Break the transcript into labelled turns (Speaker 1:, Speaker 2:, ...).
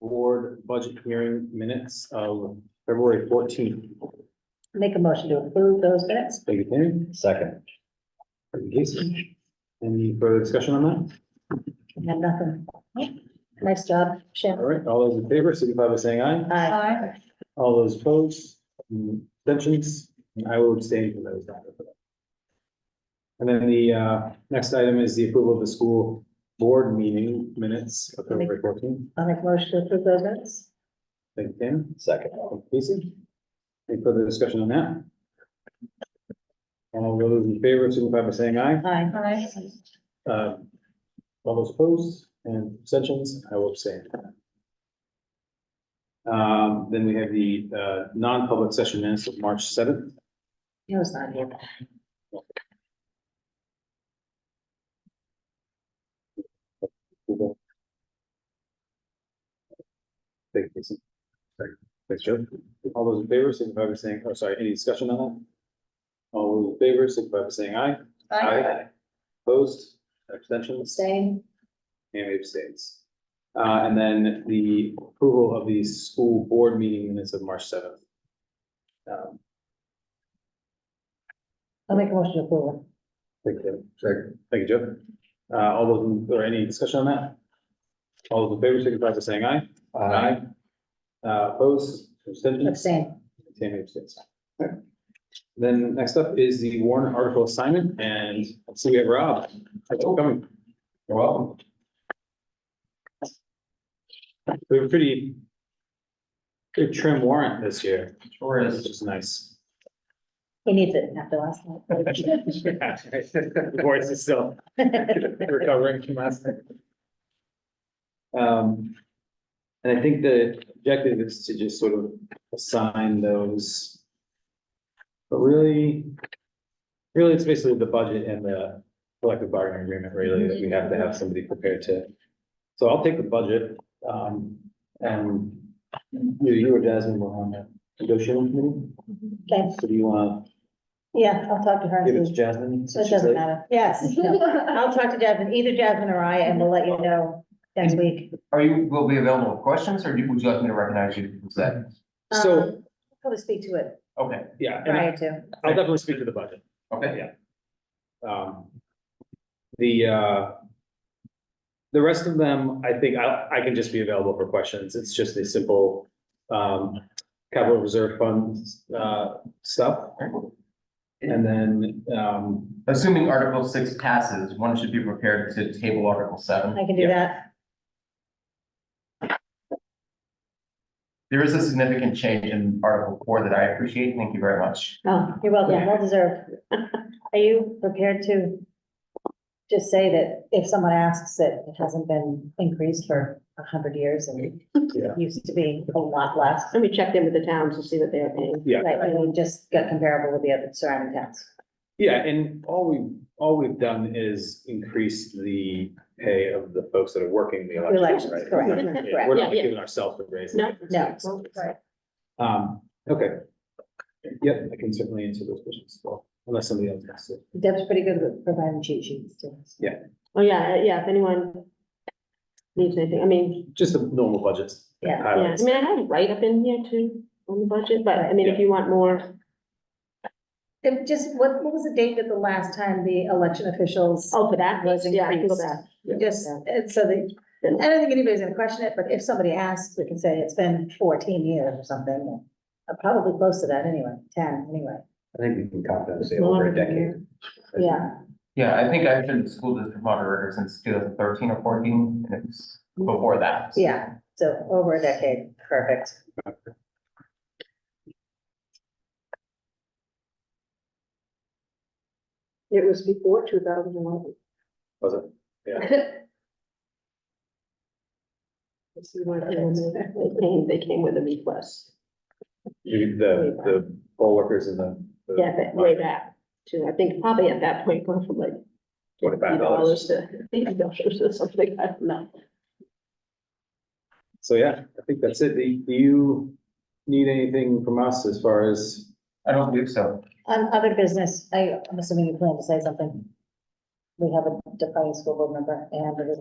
Speaker 1: board budget hearing minutes of February fourteenth.
Speaker 2: Make a motion to approve those minutes.
Speaker 1: Thank you, Tammy.
Speaker 3: Second.
Speaker 1: Thank you, Casey. Any further discussion on that?
Speaker 2: I have nothing. Nice job,
Speaker 1: All
Speaker 2: Shannon.
Speaker 1: right, all those in favor, signify by saying aye.
Speaker 2: Aye.
Speaker 4: Aye.
Speaker 1: All those opposed, mm, abstentions, and I will abstain from those. And then the uh, next item is the approval of the school board meeting minutes of February fourteenth.
Speaker 2: I'll make a motion to approve those minutes.
Speaker 1: Thank you, Tim.
Speaker 3: Second.
Speaker 1: Casey? Any further discussion on that? All those in favor, signify by saying aye.
Speaker 2: Aye.
Speaker 4: Aye.
Speaker 1: Uh, All those opposed and abstentions, I will abstain. Um, Then we have the uh, non-public session minutes of March seventh.
Speaker 2: He was not here.
Speaker 1: Google. Thank you. Jason. Sorry. Thanks, Joe. All those in favor, signify by saying, oh, sorry, any discussion on that? All those in favor, signify by saying aye. Opposed, abstentions,
Speaker 2: Same.
Speaker 1: and abstains. Uh, and then the approval of the school board meeting minutes of March seventh. Um,
Speaker 2: I'll make a motion to approve. them.
Speaker 1: thank you. Thank you, Joe. Uh, all those, in- or any discussion on that? All those in favor, signify by saying aye. Aye. Uh, opposed, abstentions?
Speaker 2: Abstain.
Speaker 1: Tammy abstains. Okay. Then next up is the warrant article assignment and so we have Rob. Thanks for coming. You're welcome. We have a pretty good trim warrant this year,
Speaker 3: Sure
Speaker 1: which is nice.
Speaker 2: He needs it after last night.
Speaker 1: The Voice is still recovering from last night. Um, and I think the objective is to just sort of assign those. But really, really, it's basically the budget and the collective bargaining agreement really that we have to have somebody prepared to. So I'll take the budget, um, and you, you or Jasmine will on the negotiating committee.
Speaker 2: Okay,
Speaker 1: So do you want
Speaker 2: yeah, I'll talk to her.
Speaker 1: to give it to Jasmine?
Speaker 2: So it doesn't matter. Yes. I'll talk to Jasmine, either Jasmine or I, and we'll let you know next week.
Speaker 5: Are you, will be available for questions, or do- would you like me to recognize you for that?
Speaker 1: So-
Speaker 2: Um, Probably speak to it
Speaker 5: Okay,
Speaker 1: Yeah, and I-
Speaker 2: prior to.
Speaker 1: I'll definitely speak to the budget.
Speaker 5: okay.
Speaker 1: Um, the, uh, the rest of them, I think I, I can just be available for questions. It's just a simple, um, capital reserve funds, uh, stuff. And then, um,
Speaker 5: Assuming Article six passes, one should be prepared to table Article seven.
Speaker 2: I can do
Speaker 1: Yeah.
Speaker 2: that.
Speaker 5: There is a significant change in Article four that I appreciate. Thank you very much.
Speaker 2: Oh, you're welcome. Well deserved. Are you prepared to just say that if someone asks that it hasn't been increased for a hundred years and
Speaker 1: Yeah.
Speaker 2: it used to be a lot less?
Speaker 4: Let me check in with the towns to see what they're paying.
Speaker 1: yeah,
Speaker 2: Right, and we just got comparable with the other surrounding towns.
Speaker 1: yeah, and all we, all we've done is increase the pay of the folks that are working the elections,
Speaker 2: Elections,
Speaker 1: right?
Speaker 2: correct,
Speaker 1: Yeah, We're
Speaker 4: correct.
Speaker 1: not
Speaker 4: Yeah, yeah.
Speaker 1: giving ourselves a raise.
Speaker 4: No,
Speaker 2: no.
Speaker 4: Right.
Speaker 1: Um, okay. Yep, I can certainly answer those questions as well, unless somebody else has to.
Speaker 2: Deb's pretty good with providing cheat sheets to us.
Speaker 4: Oh, yeah, yeah, if anyone needs anything, I mean,
Speaker 1: Just the normal budgets.
Speaker 2: Yeah, yeah.
Speaker 4: yeah, I
Speaker 1: highlights.
Speaker 4: mean, I have a write-up in here too on the budget, but I mean, if you want more,
Speaker 2: And just, what, what was the date of the last time the election officials?
Speaker 4: oh, for that,
Speaker 2: Was
Speaker 4: yeah, I can go
Speaker 2: increased.
Speaker 4: back.
Speaker 2: Just, and so that, I don't think anybody's gonna question it, but if somebody asks, we can say it's been fourteen years or something. Uh, Probably close to that anyway, ten anyway.
Speaker 3: I think we can confidently say
Speaker 4: It's
Speaker 3: over
Speaker 4: longer
Speaker 3: a
Speaker 4: than
Speaker 3: decade.
Speaker 4: Yeah,
Speaker 5: Yeah, I think I've been the school district moderator since two thousand thirteen or fourteen, and it's before that.
Speaker 2: Yeah, so over a decade, perfect.
Speaker 4: it was before two thousand eleven.
Speaker 1: Was it? Yeah.
Speaker 4: They came, they came with a request.
Speaker 1: You- The, the poll workers and the. the-
Speaker 4: Yeah, but way back too. I think probably at that point, going from like
Speaker 1: Twenty-five
Speaker 4: fifty
Speaker 1: dollars.
Speaker 4: dollars to eighty dollars or something. I don't know.
Speaker 1: So, yeah, I think that's it. Do do you need anything from us as far as?
Speaker 5: I don't believe so.
Speaker 2: On other business, I, I'm assuming you plan to say something. We have a departing school board member and it is